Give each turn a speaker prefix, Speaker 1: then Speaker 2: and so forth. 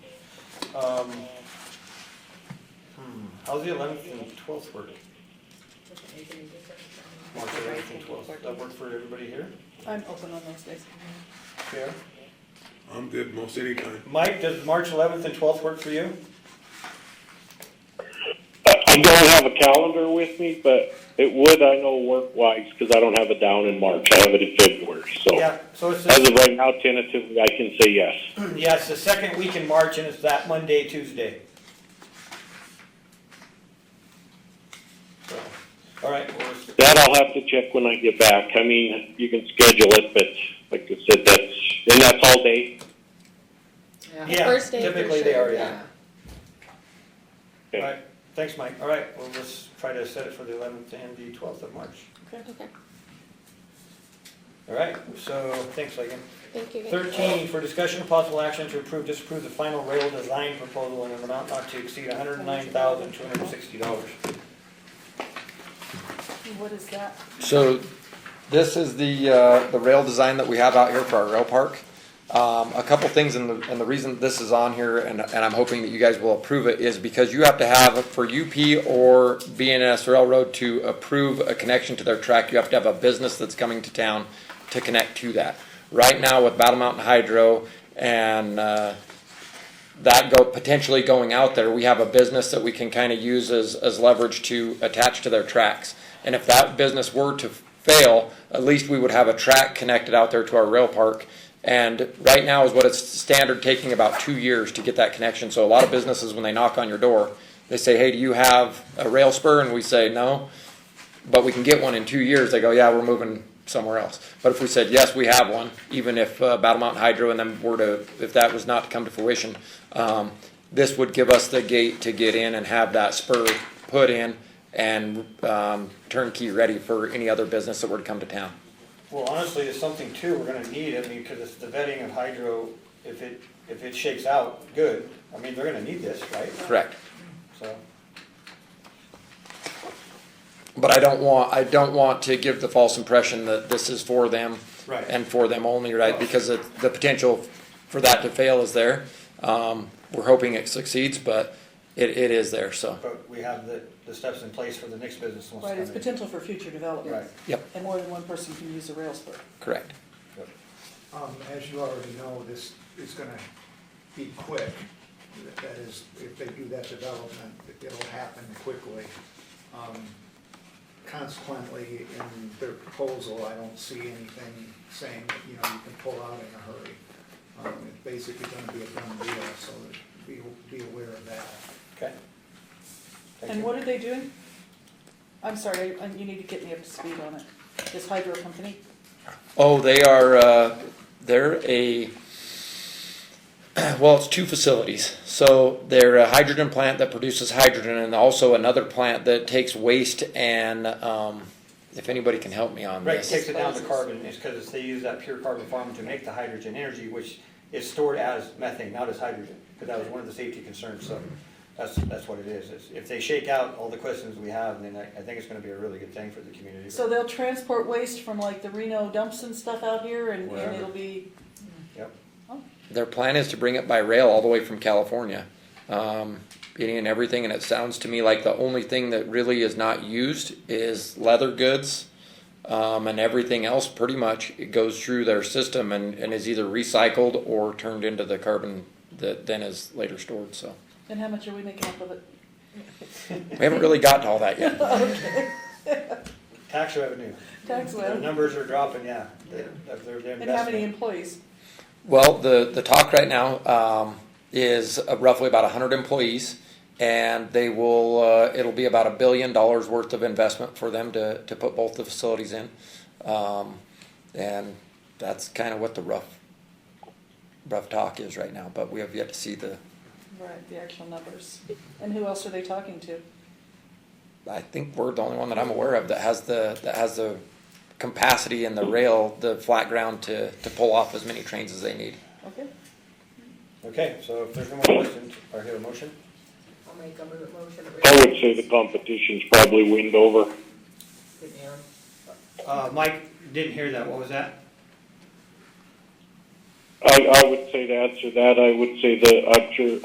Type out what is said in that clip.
Speaker 1: Um, hmm, how's the eleventh and twelfth work?
Speaker 2: Doesn't make any difference.
Speaker 1: March eleventh and twelfth, that work for everybody here?
Speaker 3: I'm open on those days.
Speaker 1: Yeah.
Speaker 4: I'm good most any time.
Speaker 1: Mike, does March eleventh and twelfth work for you?
Speaker 5: I don't have a calendar with me, but it would, I know, work-wise, because I don't have it down in March. I have it in February, so.
Speaker 1: Yeah, so it's,
Speaker 5: As
Speaker 1: the-
Speaker 5: of right now, tentatively, I can say yes.
Speaker 1: yeah, it's the second week in March and it's that Monday, Tuesday. So, All right, well, it's-
Speaker 5: That I'll have to check when I get back. I mean, you can schedule it, but like I said, that's, and that's all day.
Speaker 1: Yeah,
Speaker 2: First day for
Speaker 1: typically they
Speaker 2: sure,
Speaker 1: are, yeah.
Speaker 5: Okay.
Speaker 1: all right, thanks, Mike. All right, well, let's try to set it for the eleventh and the twelfth of March.
Speaker 3: Okay.
Speaker 2: Okay,
Speaker 1: All right, so, thanks, Megan.
Speaker 2: thank you. guys.
Speaker 1: Thirteen, for discussion of possible action to approve, disapprove the final rail design proposal in an amount not to exceed hundred and nine thousand, two hundred and sixty dollars.
Speaker 3: What is that?
Speaker 6: So this is the, uh, the rail design that we have out here for our rail park. Um, a couple things and the, and the reason this is on here and, and I'm hoping that you guys will approve it is because you have to have, for UP or BNS Railroad to approve a connection to their track, you have to have a business that's coming to town to connect to that. Right now with Battle Mountain Hydro and, uh, that go, potentially going out there, we have a business that we can kind of use as, as leverage to attach to their tracks. And if that business were to fail, at least we would have a track connected out there to our rail park. And right now is what it's standard taking about two years to get that connection. So a lot of businesses, when they knock on your door, they say, hey, do you have a rail spur? And we say, no but we can get one in two years, they go, yeah, we're moving somewhere else. But if we said, yes, we have one, even if uh, Battle Mountain Hydro and them were to, if that was not to come to fruition, um, this would give us the gate to get in and have that spur put in and um, turnkey ready for any other business that were to come to town.
Speaker 1: Well, honestly, it's something too, we're gonna need, I mean, cause it's the vetting of hydro, if it, if it shakes out, good. I mean, they're gonna need this, right?
Speaker 6: Correct.
Speaker 1: So,
Speaker 6: But I don't want, I don't want to give the false impression that this is for them.
Speaker 1: Right.
Speaker 6: And for them only, right? Because it, the potential for that to fail is there. Um, we're hoping it succeeds, but it, it is there, so,
Speaker 1: but we have the, the steps in place for the next business wants
Speaker 3: Right, it's
Speaker 1: to come
Speaker 3: potential for future
Speaker 1: in. Right,
Speaker 3: development.
Speaker 6: yep,
Speaker 3: And more than one person can use a rail spur.
Speaker 6: correct.
Speaker 7: Um, as you already know, this is gonna be quick. That is, if they do that development, it'll happen quickly. Um, Consequently, in their proposal, I don't see anything saying, that, you know, you can pull out in a hurry. Um, it's basically gonna be a done deal, so be, be aware of that.
Speaker 1: okay. Thank
Speaker 3: And
Speaker 1: you.
Speaker 3: what are they doing? I'm sorry, I- you need to get me up to speed on it. This hydro company?
Speaker 6: Oh, they are, uh, they're a, well, it's two facilities. So they're a hydrogen plant that produces hydrogen and also another plant that takes waste and, um, if anybody can help me on
Speaker 1: Right, it
Speaker 6: this.
Speaker 1: takes it down to
Speaker 3: Disposes.
Speaker 1: carbon, it's because they use that pure carbon farming to make the hydrogen energy, which is stored as methane, not as hydrogen, because that was one of the safety concerns, so that's, that's what it is. It's- If they shake out all the questions we have, then I, I think it's gonna be a really good thing for the community.
Speaker 3: So they'll transport waste from like the Reno dumps and stuff out here and, and
Speaker 6: Wherever.
Speaker 3: it'll be,
Speaker 1: Yep,
Speaker 6: Their plan is to bring it by rail all the way from California, um, any and everything. And it sounds to me like the only thing that really is not used is leather goods, um, and everything else pretty much it goes through their system and, and is either recycled or turned into the carbon that then is later stored. So
Speaker 3: and how much are we making up of it?
Speaker 6: we haven't really gotten to all that yet.
Speaker 1: tax revenue,
Speaker 3: Tax
Speaker 1: the
Speaker 3: well.
Speaker 1: numbers are dropping, yeah, They- of their their
Speaker 3: And how many
Speaker 1: investment.
Speaker 3: employees?
Speaker 6: Well, the, the talk right now um, is uh, roughly about 100 employees, and they will, uh, it'll be about a billion dollars worth of investment for them to, to put both the facilities in. Um, and that's kind of what the rough, rough talk is right now, but we have yet to see the,
Speaker 3: Right, the actual numbers. And who else are they talking to?
Speaker 6: I think we're the only one that I'm aware of that has the, that has the capacity and the rail, the flat ground to, to pull off as many trains as they need.
Speaker 3: Okay,
Speaker 1: Okay, so if there's no more questions, I hear a motion,
Speaker 2: I'll make a mo- motion. to
Speaker 5: I would say the competition's probably wind over.
Speaker 2: Good, Aaron.
Speaker 1: uh, Mike, didn't hear that, what was that?
Speaker 5: I, I would say to answer that, I would say the, I'm sure,